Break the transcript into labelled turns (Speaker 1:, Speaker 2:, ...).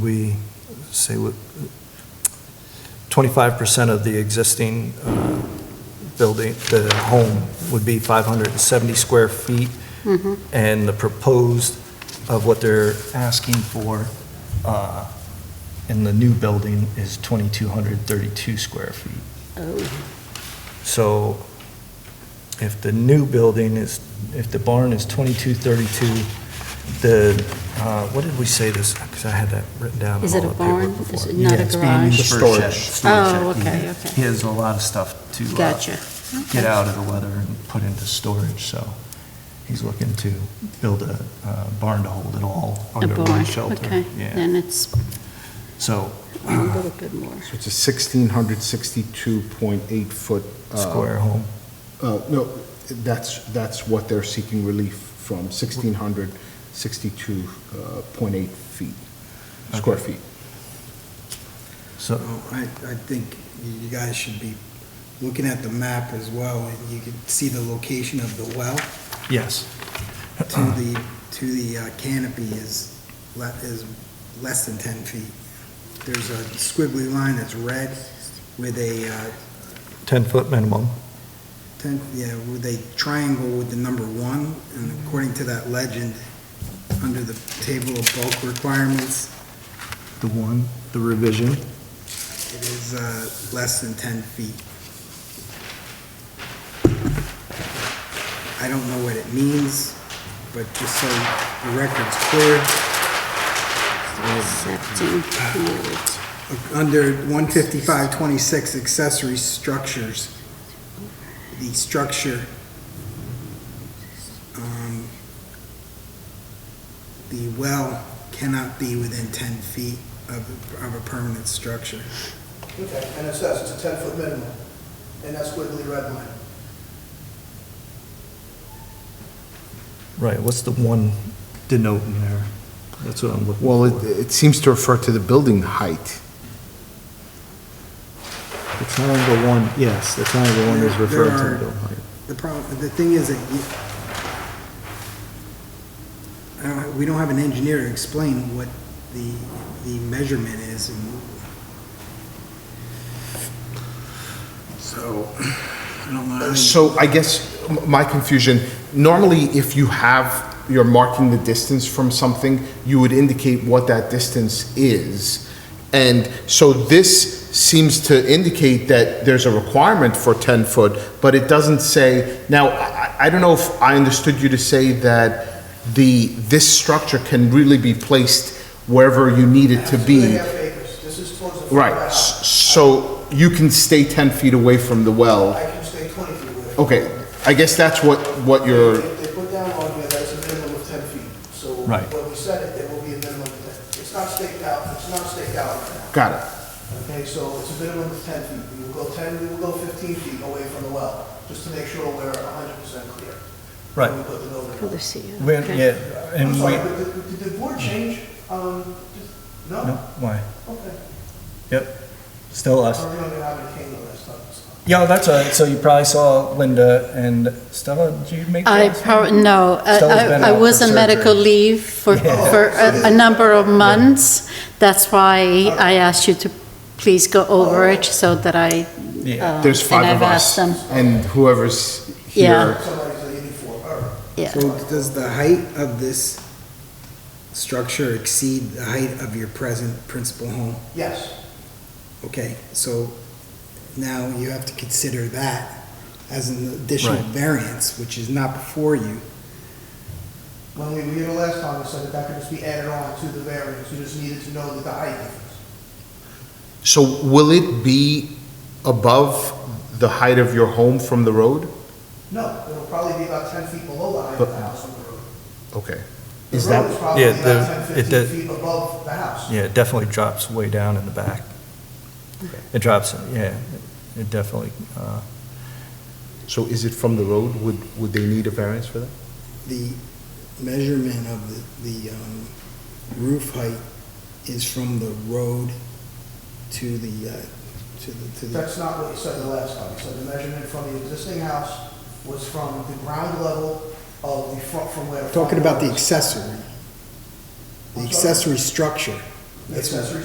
Speaker 1: we say what, 25% of the existing uh, building, the home would be 570 square feet, and the proposed of what they're asking for uh, in the new building is 2,232 square feet.
Speaker 2: Oh,
Speaker 1: So if the new building is, if the barn is 2232, the, uh, what did we say this, because I had that written down. in
Speaker 2: Is it
Speaker 1: all
Speaker 2: a
Speaker 1: the paperwork
Speaker 2: barn? Is
Speaker 1: before.
Speaker 2: it not a
Speaker 1: Yeah, it's being used
Speaker 2: garage?
Speaker 1: for a shed,
Speaker 3: Storage.
Speaker 1: storage shed.
Speaker 2: Oh, okay,
Speaker 1: Mhm.
Speaker 2: okay.
Speaker 1: He has a lot of stuff to uh,
Speaker 2: gotcha.
Speaker 1: get out of the weather and put into storage, so he's looking to build a uh, barn to hold it all
Speaker 2: A
Speaker 1: under
Speaker 2: barn,
Speaker 1: one shelter.
Speaker 2: okay.
Speaker 1: Yeah,
Speaker 2: Then it's
Speaker 1: so
Speaker 2: a little bit more.
Speaker 3: So it's a sixteen hundred sixty-two point eight foot. uh,
Speaker 1: square home.
Speaker 3: Uh, no, that's, that's what they're seeking relief from, sixteen hundred sixty-two uh, point eight feet, square
Speaker 1: Okay.
Speaker 3: feet.
Speaker 1: So,
Speaker 4: Oh, I, I think you guys should be looking at the map as well, and you can see the location of the well
Speaker 1: yes.
Speaker 4: to the, to the uh, canopy is, le- is less than 10 feet. There's a squiggly line that's red with a uh,
Speaker 1: 10-foot minimum.
Speaker 4: 10, yeah, with a triangle with the number one, and according to that legend, under the table of bulk requirements,
Speaker 1: The one, the revision.
Speaker 4: it is uh, less than 10 feet. I don't know what it means, but just so the record's clear,
Speaker 2: Accepting yield.
Speaker 4: under 15526 accessory structures, the structure, um, the well cannot be within 10 feet of, of a permanent structure.
Speaker 5: Okay, and it says it's a ten-foot minimum, and that's squiggly red line.
Speaker 1: Right, what's the one denoting there? That's what I'm looking for.
Speaker 3: Well, it, it seems to refer to the building height.
Speaker 1: The triangle one, yes, the triangle one is
Speaker 4: There- there
Speaker 1: referring to the
Speaker 4: are-
Speaker 1: building height.
Speaker 4: The problem, the thing is that you, I don't- we don't have an engineer to explain what the, the measurement is and. So, I don't know. how you-
Speaker 3: So I guess m- my confusion, normally if you have, you're marking the distance from something, you would indicate what that distance is. And so this seems to indicate that there's a requirement for 10 foot, but it doesn't say, now, I, I I don't know if I understood you to say that the, this structure can really be placed wherever you need it to be.
Speaker 5: Two and a half acres, this is towards the. front of
Speaker 3: Right,
Speaker 5: the
Speaker 3: s-
Speaker 5: house.
Speaker 3: so you can stay 10 feet away from the well.
Speaker 5: I can stay twenty feet away.
Speaker 3: Okay, I guess that's what, what you're,
Speaker 5: They they put down on here, that's a minimum of ten feet, so.
Speaker 1: Right.
Speaker 5: When we set it, there will be a minimum of ten, it's not staked out, it's not staked out right now.
Speaker 3: got it,
Speaker 5: Okay, so it's a minimum of ten feet, we will go ten, we will go fifteen feet away from the well, just to make sure we're hundred percent clear. when
Speaker 1: Right.
Speaker 5: We put the building.
Speaker 2: Oh,
Speaker 5: up.
Speaker 2: the CO,
Speaker 1: When,
Speaker 2: okay.
Speaker 1: yeah,
Speaker 5: I'm
Speaker 1: and
Speaker 5: sorry,
Speaker 1: we, Mm.
Speaker 5: but did, did the board change, um, just-
Speaker 1: no, Uh,
Speaker 5: no?
Speaker 1: why?
Speaker 5: Okay.
Speaker 1: Yep, still us.
Speaker 5: Or we don't have a cane last time, so.
Speaker 1: Yeah, that's all right, so you probably saw Linda and Stella, did you make
Speaker 2: I,
Speaker 1: that?
Speaker 2: pro- no, I-
Speaker 1: Stella's been
Speaker 2: I I
Speaker 1: out
Speaker 2: was
Speaker 1: for
Speaker 2: on medical
Speaker 1: surgery.
Speaker 2: leave for,
Speaker 1: Yeah.
Speaker 2: for a a number of months. That's
Speaker 1: Uh-huh.
Speaker 2: why I asked you to please go over it so that I.
Speaker 1: Yeah.
Speaker 2: uh,
Speaker 3: there's
Speaker 2: and
Speaker 3: five of
Speaker 2: I've asked
Speaker 3: us.
Speaker 2: them.
Speaker 3: And whoever's
Speaker 2: Yeah.
Speaker 3: here,
Speaker 5: Somebody's a uniform, all right.
Speaker 2: Yeah,
Speaker 4: So does the height of this structure exceed the height of your present principal home?
Speaker 5: Yes,
Speaker 4: Okay, so now you have to consider that as an additional
Speaker 1: Right.
Speaker 4: variance, which is not before you.
Speaker 5: when we were here the last time, we said that that could just be added on to the variance, you just needed to know that the height difference.
Speaker 3: so will it be above the height of your home from the road?
Speaker 5: No, it'll probably be about ten feet below the height of the house on the road.
Speaker 3: Okay,
Speaker 5: The
Speaker 3: Is
Speaker 5: road
Speaker 3: that-
Speaker 5: is probably
Speaker 1: Yeah, the-
Speaker 5: about ten,
Speaker 1: it
Speaker 5: fifteen
Speaker 1: does-
Speaker 5: feet above the house.
Speaker 1: Yeah, it definitely drops way down in the back. It drops, yeah, it definitely, uh,
Speaker 3: so is it from the road? Would, would they need a variance for that?
Speaker 4: The measurement of the, the um, roof height is from the road to the, uh, to the, to the,
Speaker 5: That's not what you said the last time, you said the measurement from the existing house was from the ground level of the front, from where. the front
Speaker 4: talking about
Speaker 5: door
Speaker 4: the
Speaker 5: is.
Speaker 4: accessory. The accessory structure.
Speaker 5: The accessory